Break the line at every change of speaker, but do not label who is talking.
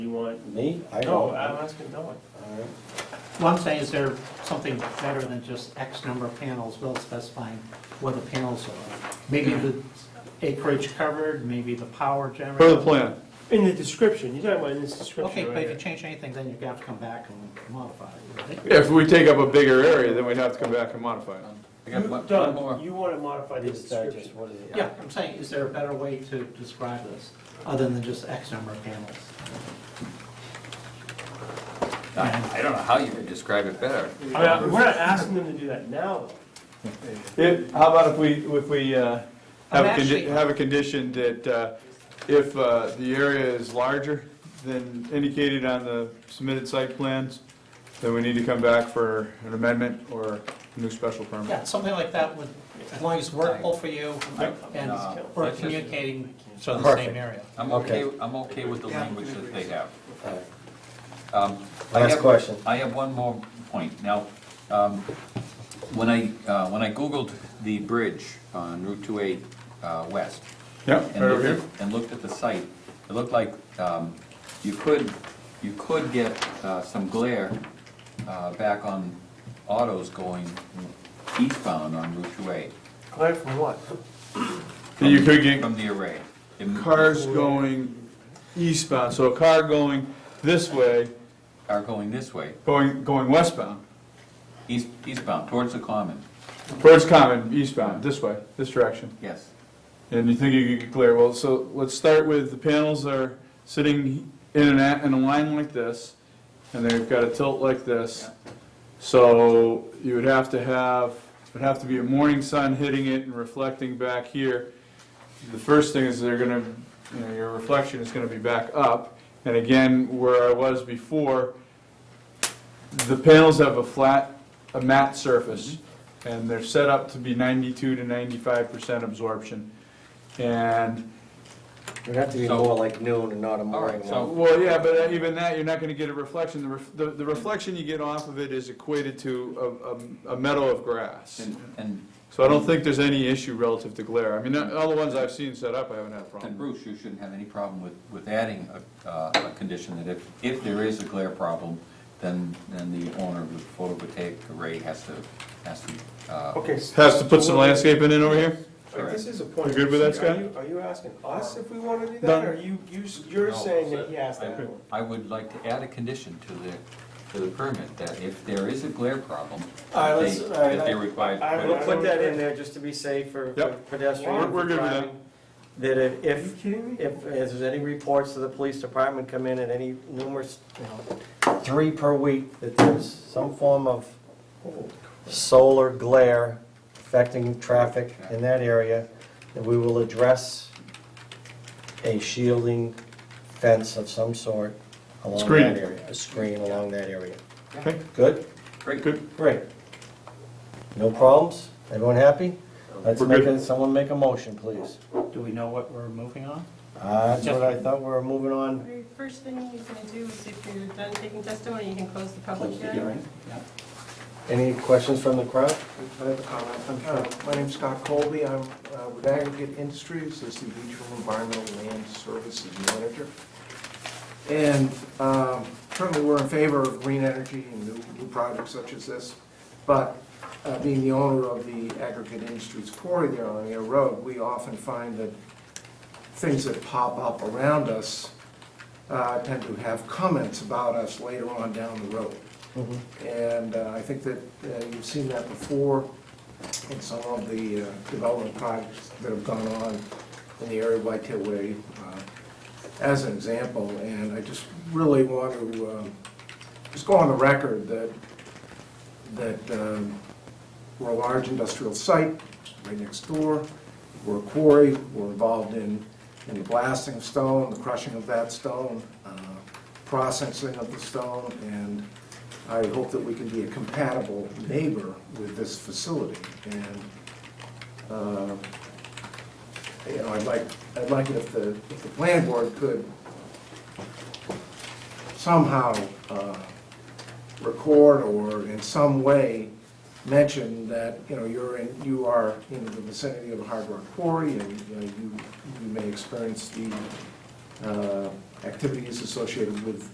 Dylan?
Me? I
No,
don't.
I'm asking Dylan.
All right.
What I'm saying is there something better than just X number of panels, well specifying what the panels are. Maybe the acreage covered, maybe the power
For the
generated.
plan,
In the description, you're talking about in this
Okay,
description
but
right
if you
here.
change anything, then you have to come back and modify it, right?
if we take up a bigger area, then we'd have to come back and modify it.
I
You-
got one- one more.
Don, you want to modify the
This digest,
description.
what is it?
Yeah, I'm saying, is there a better way to describe this, other than just X number of panels?
I I don't know how you could describe it better.
I mean, I- Uh, we're not asking them to do that now.
If, how about if we, if we uh, have
I'm
a, condi-
actually-
have a condition that uh, if uh, the area is larger than indicated on the submitted site plans, then we need to come back for an amendment or a new special permit?
Yeah, something like that would, as long as it's workable for you and
No.
we're communicating to the
Perfect.
same area.
I'm okay, I'm okay with the language that they have.
All right.
Um, I
Last
have-
question.
I have one more point. Now, um, when I, uh, when I Googled the bridge on Route 28 uh, West,
Yeah,
and
right over
looked
here.
at, and looked at the site, it looked like um, you could, you could get uh, some glare uh, back on autos going eastbound on Route 28
Glad from what?
That You could get
from the array. It-
cars going eastbound, so a car going this way,
Are going this way,
going, going westbound,
east eastbound, towards the common,
Bird's Common eastbound, this way, this direction.
yes.
And you think you could get clear, well, so let's start with the panels that are sitting in an, a- in a line like this, and they've got a tilt like this. So you would have to have, it would have to be a morning sun hitting it and reflecting back here. The first thing is they're gonna, you know, your reflection is gonna be back up. And again, where I was before, the panels have a flat, a matte surface, and they're set up to be ninety-two to ninety-five percent absorption. And,
It would have to be
So-
more like noon and not a morning
right, so-
one.
well, yeah, but even that, you're not gonna get a reflection, the, ref- the, the reflection you get off of it is equated to a, a, a meadow of grass.
And, and
So I don't think there's any issue relative to glare, I mean, all the ones I've seen set up, I haven't had a
and
problem.
Bruce, you shouldn't have any problem with, with adding a, uh, a condition that if, if there is a glare problem, then, then the owner of the photovoltaic array has to, has to, uh,
Okay. so-
Has to put some landscaping in over here?
All right, This is a point.
You good with that,
Are
Scott?
you- Are you asking us if we want to do that,
No.
or you, you s- you're
No.
saying that he asked that?
I would like to add a condition to the, to the permit, that if there is a glare problem,
All right,
that
let's-
they,
all right,
that they
I-
require.
I-
We'll put that in there just to be safe for for
Yep.
pedestrians.
We're- we're good with that.
driving, That if-
Are you
if,
kidding me?
if, if there's any reports to the police department come in at any numerous, you know, three per week, that there's some form of solar glare affecting traffic in that area, that we will address a shielding fence of some sort along
Screen.
that area. A screen along that area.
Okay.
Good?
Great.
Good.
Great. No problems? Everyone happy? Let's
We're
make,
good.
a- someone make a motion, please.
Do we know what we're moving on?
Uh, That's what I thought we were moving on.
Very First thing you're gonna do is if you're done taking testimony, you can close the public hearing.
Yeah.
Any questions from the crowd?
I have a comment.
Oh,
Uh, My name's Scott Colby. I'm uh, with Aggregate Industries as the Regional Environmental Land Services Manager. And um, certainly, we're in favor of green energy and new new projects such as this. But uh, being the owner of the Aggregate Industries quarry there on Air Road, we often find that things that pop up around us uh, tend to have comments about us later on down the road. And uh, I think that uh, you've seen that before in some of the uh, development projects that have gone on in the area of Whitetail Way, uh, as an example. And I just really want to um, just go on the record that, that um, we're a large industrial site right next door. We're a quarry, we're involved in, in the blasting of stone, the crushing of that stone, uh, processing of the stone, and I hope that we can be a compatible neighbor with this facility. And, uh, you know, I'd like, I'd like it if the, if the planning board could somehow uh, record or in some way mention that, you know, you're in, you are in the vicinity of a hard rock quarry and, you know, you, you may experience the uh, activities associated with